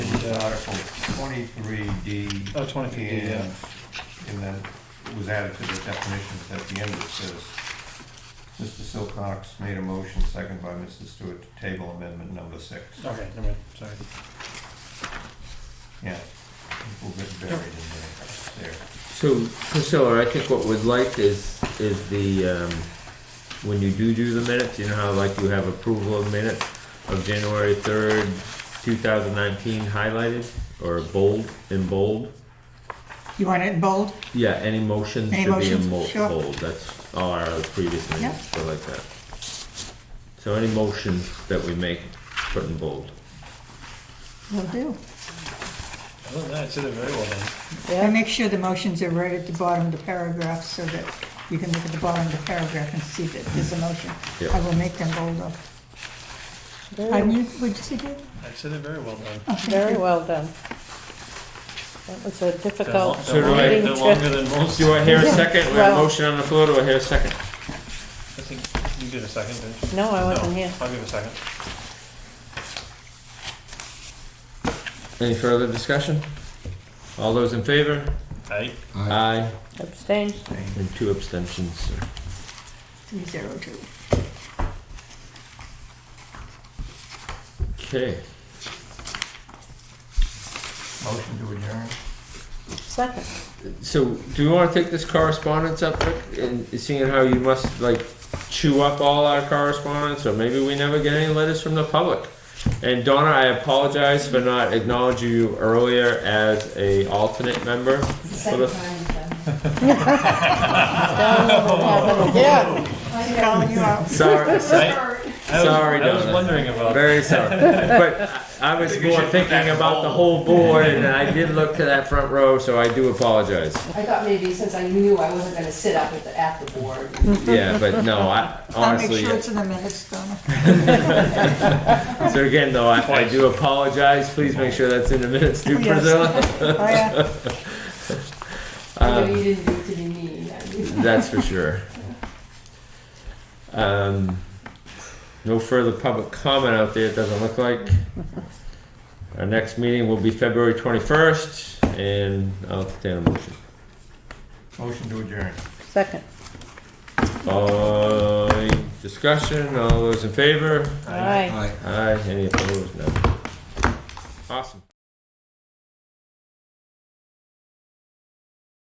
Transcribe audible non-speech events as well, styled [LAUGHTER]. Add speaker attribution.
Speaker 1: Yeah.
Speaker 2: Article twenty-three D.
Speaker 1: Oh, 23D, yeah.
Speaker 2: And then it was added to the definitions at the end, it says, Mr. Silcox made a motion, second by Mrs. Stewart, to table amendment number six.
Speaker 1: Okay, never mind, sorry.
Speaker 2: Yeah, we'll get buried in there, there.
Speaker 3: So Priscilla, I think what we'd like is, is the, um, when you do do the minutes, you know how like you have approval of minutes of January third, two thousand nineteen highlighted or bold, in bold?
Speaker 4: You want it in bold?
Speaker 3: Yeah, any motions
Speaker 4: Any
Speaker 3: should be in
Speaker 4: motions?
Speaker 3: mo-
Speaker 4: Sure.
Speaker 3: bold, that's all our previous minutes, so like that. So any motions that we make, put in bold.
Speaker 4: Will do.
Speaker 1: Other than that, it's either very well done.
Speaker 4: And make sure the motions are right at the bottom of the paragraph so that you can look at the bottom of the paragraph and see that there's a motion.
Speaker 3: Yeah.
Speaker 4: I will make them bold up. Pardon you, would you say that?
Speaker 1: I'd say they're very well done.
Speaker 4: Oh, thank
Speaker 5: Very
Speaker 4: you.
Speaker 5: well done. That was a
Speaker 1: They're lo-
Speaker 5: difficult
Speaker 3: So
Speaker 1: They're
Speaker 3: do I-
Speaker 1: longer-
Speaker 5: meeting [LAUGHS]
Speaker 1: they're longer
Speaker 5: trip.
Speaker 1: than most.
Speaker 3: Oh, Do I hear a second? We have a
Speaker 5: Well-
Speaker 3: motion on the floor, do I hear a second?
Speaker 1: I think you did a second, didn't you?
Speaker 5: No, Oh, I wasn't
Speaker 1: No,
Speaker 5: here.
Speaker 1: I'll give a second.
Speaker 3: Any further discussion? All those in favor?
Speaker 1: Aye.
Speaker 3: Aye.
Speaker 5: Abstained.
Speaker 3: And two abstentions.
Speaker 4: Three zero two.
Speaker 3: Okay.
Speaker 2: Motion to adjourn?
Speaker 5: Second.
Speaker 3: So, do you want to take this correspondence up, Rick? And seeing how you must like chew up all our correspondence, or maybe we never get any letters from the public. And Donna, I apologize for not acknowledging you earlier as a alternate member. for the-
Speaker 5: Yeah,
Speaker 4: Calling you out.
Speaker 3: Sorry,
Speaker 1: Right? I was-
Speaker 3: Sorry,
Speaker 1: I was
Speaker 3: Donna.
Speaker 1: wondering about.
Speaker 3: Very sorry. But I was
Speaker 2: think you
Speaker 3: more
Speaker 2: should put that
Speaker 3: thinking
Speaker 2: in
Speaker 3: about the
Speaker 2: bold.
Speaker 3: whole board, and I did look to that front row, so I do apologize.
Speaker 6: I thought maybe since I knew I wasn't gonna sit up at the, at the board,
Speaker 3: Yeah, but no, I
Speaker 4: I'll make
Speaker 3: honestly.
Speaker 4: sure it's in the minutes, Donna.
Speaker 3: So again, though, I, I do apologize. Please make sure that's in the minutes, too,
Speaker 4: Yes.
Speaker 3: Priscilla.
Speaker 4: [LAUGHS] Oh, yeah.
Speaker 6: I know you didn't do it to be mean. I knew.
Speaker 3: That's for sure. Um, no further public comment out there. It doesn't look like. Our next meeting will be February twenty-first, and I'll entertain a motion.
Speaker 2: Motion to adjourn.
Speaker 5: second.
Speaker 3: Uh, any discussion. All those in favor?
Speaker 5: All right.
Speaker 3: Aye. Any opposed? No. Awesome.